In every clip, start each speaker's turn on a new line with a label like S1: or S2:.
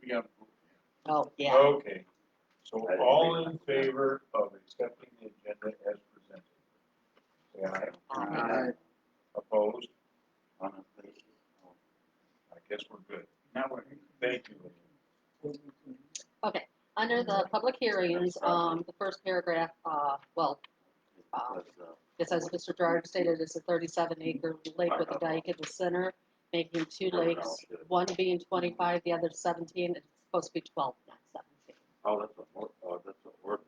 S1: we gotta vote.
S2: Oh, yeah,
S1: Okay, so all in favor of accepting the agenda as presented? Say aye.
S3: Uh,
S2: Aye.
S1: Opposed? I guess we're good. Now we're. Thank you.
S3: Under the public hearings, um, the first paragraph, uh, well, it says Mr. Gerard stated it's a thirty-seven acre lake with a dike in the center, making two lakes, one being twenty-five, the other seventeen, it's supposed to be twelve, not seventeen.
S4: Oh, that's a, or- oh, that's an ordinance.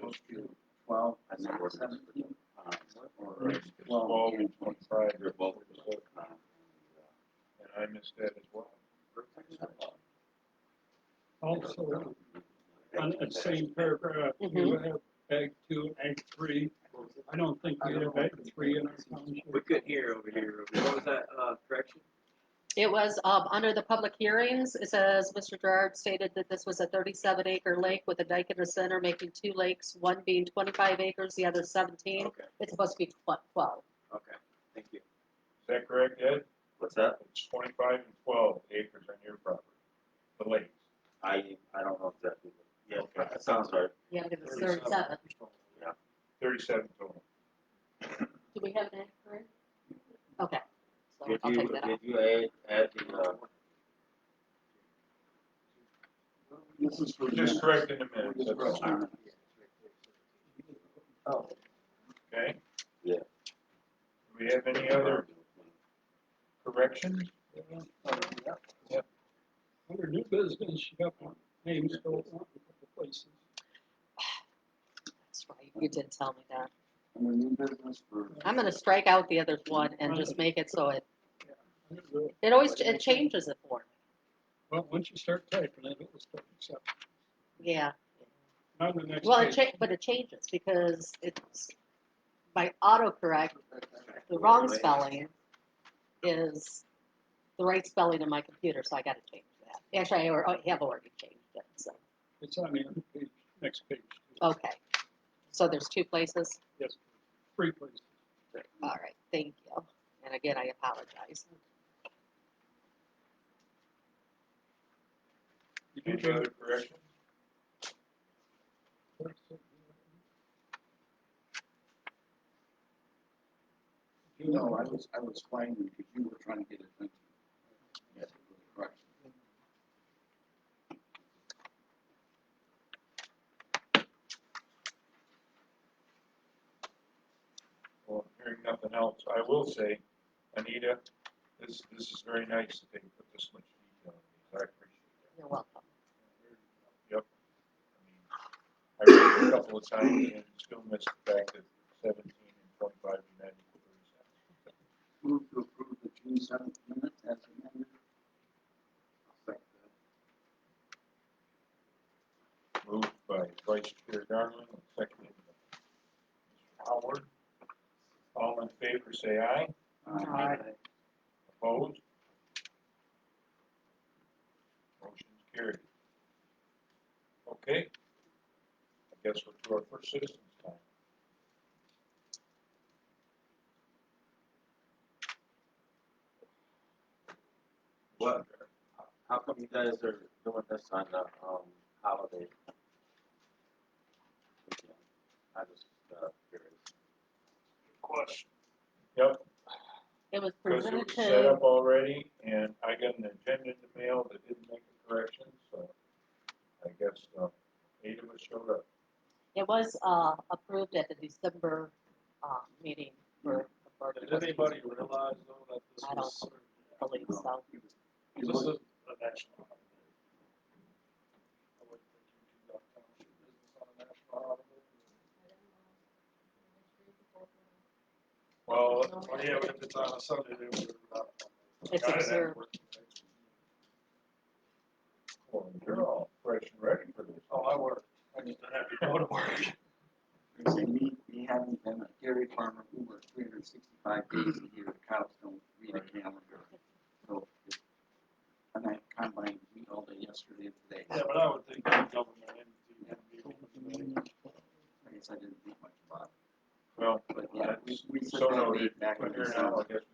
S5: Those two, twelve,
S4: That's an ordinance.
S5: seventeen.
S4: Uh,
S5: Or
S1: It's twelve and twenty-five.
S4: They're both, uh,
S1: And I missed that as well.
S6: Also, on that same paragraph, you have ag two, ag three. I don't think we have ag three in our township.
S5: We couldn't hear over here. What was that, uh, direction?
S3: It was, um, under the public hearings, it says Mr. Gerard stated that this was a thirty-seven acre lake with a dike in the center, making two lakes, one being twenty-five acres, the other seventeen,
S5: Okay,
S3: it's supposed to be tw- twelve.
S5: okay, thank you.
S1: Is that correct, Ed?
S4: What's that?
S1: It's twenty-five and twelve acres on your property, the lakes.
S4: I, I don't know exactly. Yeah, that sounds right.
S3: Yeah, because it's thirty-seven.
S1: Thirty-seven total.
S3: Do we have that, correct? Okay, so
S4: Did
S3: I'll
S4: you,
S3: take that out.
S4: did you add, add the, uh,
S1: This is. We're just correcting the minutes, that's all. okay?
S4: Yeah.
S1: Do we have any other corrections?
S6: Under new business, you got one, names go on a couple places.
S3: That's right, you did tell me that.
S5: new business
S3: I'm gonna strike out the other one and just make it so it,
S6: I don't know.
S3: it always, it changes it for
S6: Well, once you start typing it, it will start accepting.
S3: me. Yeah,
S6: Now the next
S3: well, it
S6: page.
S3: cha, but it changes because it's, by autocorrect, the wrong spelling is the right spelling in my computer, so I gotta change that. Actually, I al- I have already changed it, so,
S6: It's on the other page, next page.
S3: okay. So there's two places?
S6: Yes, three places.
S3: All right, thank you. And again, I apologize.
S6: You do
S1: Any
S6: get
S1: other corrections?
S6: it. No, I
S5: was, I was fine because you were trying to get attention. Yes. Correct.
S1: Well, hearing nothing else, I will say, Anita, this, this is very nice that they put this much detail in these, I appreciate
S3: You're welcome.
S1: that. Yep. I mean, I read it a couple of times and still missed the fact that seventeen and twenty-five united equal thirty-seven.
S5: Move to approve the June seventh minutes as amended.
S1: Moved by Vice Chair Darling, and seconded by Mr. Howard. All in favor, say aye. Opposed? Motion's carried. Okay. I guess we're to our first citizens time.
S4: what, how come you guys are doing this on the, um, holiday? Weekend? I just, uh, curious.
S1: Question. Yep,
S3: It was
S1: because it
S3: presented
S1: was set
S3: to,
S1: up already, and I got an agenda in the mail that didn't make a correction, so I guess, uh, eight of us showed up.
S3: it was, uh, approved at the December, uh, meeting for the board. of
S7: Did anybody
S3: trustees.
S7: realize though that this
S3: I
S7: was, um,
S3: I believe so.
S7: this is a national holiday? I wouldn't think you conduct township business on a national holiday.
S1: Well,
S7: Well, yeah, but if it's on a Sunday, they would.
S3: It's observed.
S1: you're all fresh and ready for this.
S7: Oh, I work. I just don't have to go to work.
S5: They say me, me having been a dairy farmer who worked three hundred and sixty-five days a year, cows don't read a calendar. So, it- and I combined wheat all day yesterday and today.
S7: Yeah, but I would think the government entity would be able to do that.
S5: I guess I didn't think much about
S1: Well,
S5: it, but yeah, we, we said
S1: So
S5: that
S1: noted.
S5: date back in
S1: but here now,
S5: December.
S1: I guess